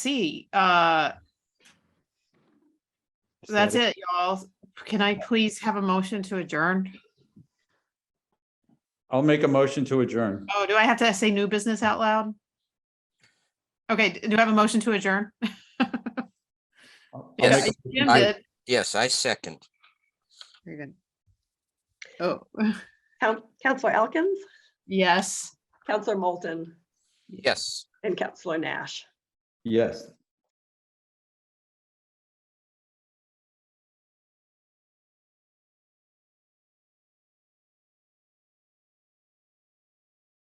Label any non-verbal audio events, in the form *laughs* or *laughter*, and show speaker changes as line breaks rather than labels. see. Uh, that's it, y'all. Can I please have a motion to adjourn?
I'll make a motion to adjourn.
Oh, do I have to say new business out loud? Okay, d- do I have a motion to adjourn?
I'll
*laughs*
Yes.
make
Jim
I-
did.
Yes, I second.
Very good. Oh,
Coun- Counselor Elkins,
yes.
Counselor Moulton,
Yes.
and Counselor Nash.
Yes.